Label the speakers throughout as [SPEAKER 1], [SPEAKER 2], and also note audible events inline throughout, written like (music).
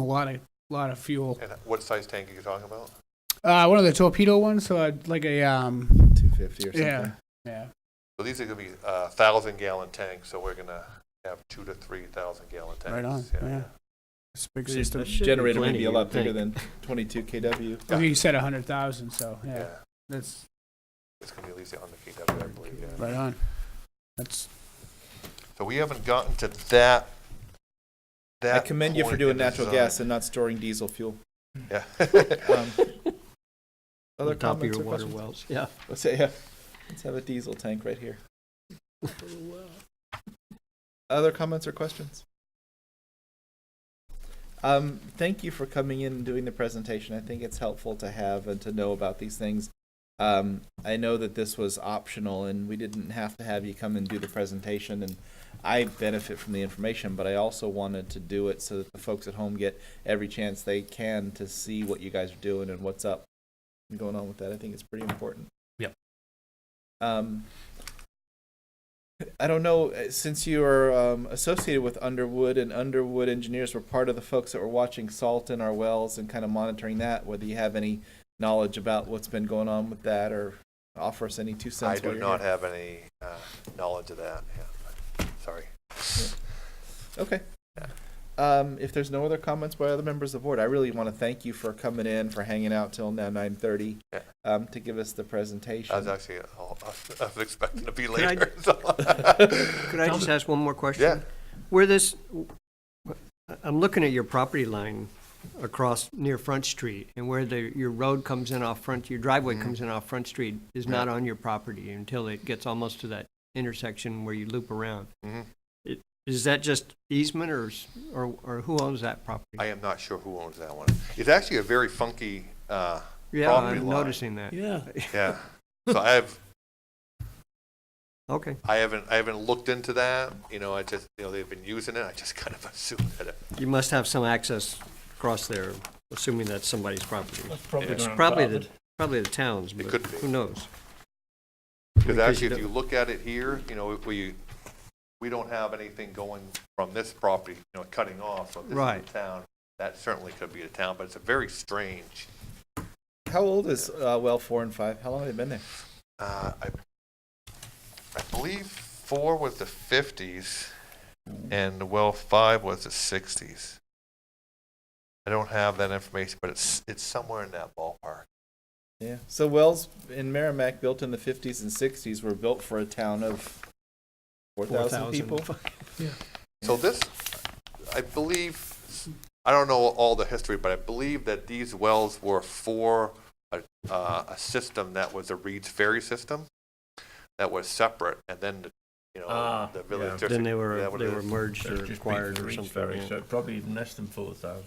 [SPEAKER 1] a lot of, lot of fuel.
[SPEAKER 2] And what size tank are you talking about?
[SPEAKER 1] Uh, one of the torpedo ones, so I'd like a, um,
[SPEAKER 3] 250 or something.
[SPEAKER 1] yeah, yeah.
[SPEAKER 2] So these are gonna be uh thousand gallon tanks, so we're gonna have two to three thousand gallon tanks.
[SPEAKER 1] Right on, yeah. It's a big system.
[SPEAKER 3] Generator would
[SPEAKER 4] plenty,
[SPEAKER 3] be a
[SPEAKER 4] you
[SPEAKER 3] lot
[SPEAKER 4] would
[SPEAKER 3] bigger than 22 kW.
[SPEAKER 1] I think you said a hundred thousand, so, yeah,
[SPEAKER 2] Yeah.
[SPEAKER 1] that's
[SPEAKER 2] It's gonna be at least on the KW, I believe, yeah.
[SPEAKER 1] right on. That's,
[SPEAKER 2] So we haven't gotten to that,
[SPEAKER 3] I
[SPEAKER 2] that.
[SPEAKER 3] commend you for
[SPEAKER 2] point
[SPEAKER 3] doing
[SPEAKER 2] in the
[SPEAKER 3] natural
[SPEAKER 2] design.
[SPEAKER 3] gas and not storing
[SPEAKER 2] (laughs)
[SPEAKER 3] diesel fuel. (laughs)
[SPEAKER 2] Yeah.
[SPEAKER 3] Um,
[SPEAKER 4] On
[SPEAKER 3] Other
[SPEAKER 4] top of
[SPEAKER 3] comments or
[SPEAKER 4] your water
[SPEAKER 3] questions?
[SPEAKER 4] wells, yeah.
[SPEAKER 3] Let's say, yeah, let's have a diesel tank right here. Other comments or questions? Um, thank you for coming in and doing the presentation. I think it's helpful to have and to know about these things. Um, I know that this was optional and we didn't have to have you come and do the presentation and I benefit from the information, but I also wanted to do it so that the folks at home get every chance they can to see what you guys are doing and what's up and going on with that. I think it's pretty important.
[SPEAKER 4] Yep.
[SPEAKER 3] Um, I don't know, uh, since you are um, associated with Underwood and Underwood engineers were part of the folks that were watching salt in our wells and kind of monitoring that, whether you have any knowledge about what's been going on with that or offer us any
[SPEAKER 2] (laughs)
[SPEAKER 3] two
[SPEAKER 2] I
[SPEAKER 3] cents.
[SPEAKER 2] do
[SPEAKER 3] while you're
[SPEAKER 2] not
[SPEAKER 3] here.
[SPEAKER 2] have any uh, knowledge of that, yeah. Sorry.
[SPEAKER 3] Okay. Um, if there's no other comments by other members of the board, I really want to thank you for coming in, for hanging out till now nine thirty,
[SPEAKER 2] Yeah.
[SPEAKER 3] um, to give us the presentation.
[SPEAKER 2] I was actually, (laughs) I was expecting to be
[SPEAKER 4] Could I-
[SPEAKER 2] later. so-
[SPEAKER 4] Could I just ask one more
[SPEAKER 2] (laughs)
[SPEAKER 4] question?
[SPEAKER 2] Yeah,
[SPEAKER 4] Where this, I'm looking at your property line across near Front Street, and where the, your road comes in off Front, your driveway comes in off Front Street is not on your property until it gets almost to that intersection where you loop around.
[SPEAKER 2] Mhm.
[SPEAKER 4] It- Is that just easement, or, s- or, or who owns that property?
[SPEAKER 2] I am not sure who owns that one. It's actually a very funky, uh,
[SPEAKER 4] Yeah,
[SPEAKER 2] property
[SPEAKER 4] I'm
[SPEAKER 2] line.
[SPEAKER 4] noticing that.
[SPEAKER 5] Yeah.
[SPEAKER 2] yeah. So I have,
[SPEAKER 4] Okay,
[SPEAKER 2] I haven't, I haven't looked into that, you know, I just, you know, they've been using it, I just (laughs) kind of assumed that it,
[SPEAKER 4] you must have some access across there, assuming that's somebody's property.
[SPEAKER 2] probably
[SPEAKER 4] It's probably the, probably the town's, but
[SPEAKER 2] could be.
[SPEAKER 4] who knows?
[SPEAKER 2] because
[SPEAKER 4] Because
[SPEAKER 2] actually,
[SPEAKER 4] you
[SPEAKER 2] if you
[SPEAKER 4] don't-
[SPEAKER 2] look at it here, you know, we, we don't have anything going from this property, you know, cutting off, so this is
[SPEAKER 4] Right.
[SPEAKER 2] the town. That certainly could be the town, but it's a very strange,
[SPEAKER 3] How old is uh, well four and five? How long have they been there?
[SPEAKER 2] uh, I, I believe four was the fifties, and well, five was the sixties. I don't have that information, but it's, it's somewhere in that ballpark.
[SPEAKER 3] Yeah. So wells in Merrimack, built in the fifties and sixties, were built for a town of four thousand
[SPEAKER 4] 4,000.
[SPEAKER 3] people.
[SPEAKER 2] So this, I believe, I don't know all the history, but I believe that these wells were for a, uh, a system that was a Reed's Ferry system that was separate, and then, the you know,
[SPEAKER 5] Ah,
[SPEAKER 2] uh, the
[SPEAKER 5] yeah.
[SPEAKER 2] village.
[SPEAKER 4] Then they
[SPEAKER 2] is that
[SPEAKER 4] were,
[SPEAKER 2] what
[SPEAKER 4] they
[SPEAKER 2] it
[SPEAKER 4] were
[SPEAKER 2] is?
[SPEAKER 4] merged
[SPEAKER 5] So it'd
[SPEAKER 4] or
[SPEAKER 5] just be
[SPEAKER 4] acquired or
[SPEAKER 5] three
[SPEAKER 4] something.
[SPEAKER 5] ferries,
[SPEAKER 4] yeah.
[SPEAKER 5] So probably even less than four thousand.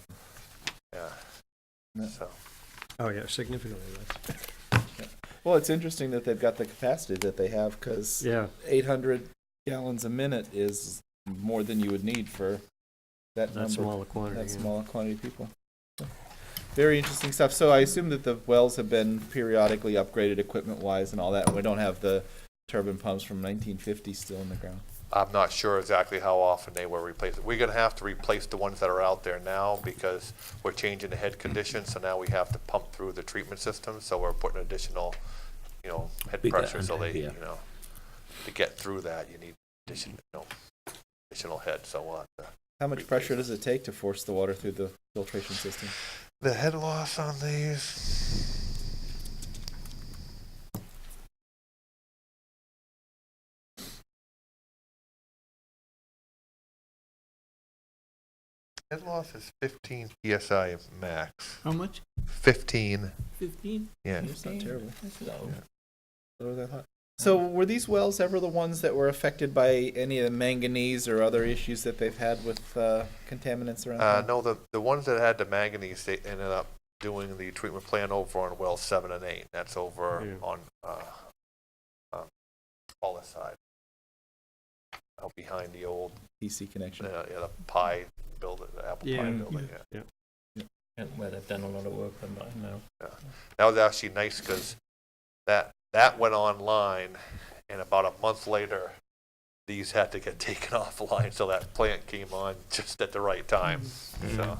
[SPEAKER 2] Yeah, so.
[SPEAKER 4] Oh, yeah, significantly less.
[SPEAKER 3] Well, it's interesting that they've got the capacity that they have because
[SPEAKER 4] Yeah,
[SPEAKER 3] eight hundred gallons a minute is more than you would need for that
[SPEAKER 4] that
[SPEAKER 3] number.
[SPEAKER 4] small a quantity.
[SPEAKER 3] That
[SPEAKER 4] yeah.
[SPEAKER 3] small quantity of people. Very interesting stuff. So I assume that the wells have been periodically upgraded equipment-wise and all that. We don't have the turbine pumps from 1950 still in the ground.
[SPEAKER 2] I'm not sure exactly how often they were replaced. We're gonna have to replace the ones that are out there now because we're changing the head condition, so now we have to pump through the treatment system, so we're putting additional, you know, head
[SPEAKER 5] Big
[SPEAKER 2] pressure,
[SPEAKER 5] hand,
[SPEAKER 2] so they,
[SPEAKER 5] yeah.
[SPEAKER 2] you know, to get through that, you need addition, you know, additional head, so we'll have to.
[SPEAKER 3] How much pressure does it take to force the water through the filtration system?
[SPEAKER 2] The head loss on these. Head loss is 15 psi max.
[SPEAKER 5] How much?
[SPEAKER 2] 15,
[SPEAKER 5] Fifteen?
[SPEAKER 2] yeah.
[SPEAKER 3] It's not terrible.
[SPEAKER 5] That's low.
[SPEAKER 2] Yeah.
[SPEAKER 3] Lower than I thought. So were these wells ever the ones that were affected by any of the manganese or other issues that they've had with uh, contaminants around?
[SPEAKER 2] Uh,
[SPEAKER 3] town?
[SPEAKER 2] no, the, the ones that had the manganese, they ended up doing the treatment plan over on well seven and eight. That's over
[SPEAKER 4] Yeah.
[SPEAKER 2] on, uh, um, Paula's side. Out behind the old,
[SPEAKER 3] PC connection.
[SPEAKER 2] uh, yeah, the pie building, the apple pie
[SPEAKER 4] Yeah.
[SPEAKER 2] building, yeah.
[SPEAKER 5] Yeah, Where they've done a lot of work on that now.
[SPEAKER 2] That was actually nice because that, that went online and about a month later, (laughs) these had to get taken offline, so that plant came on just at the right time, so.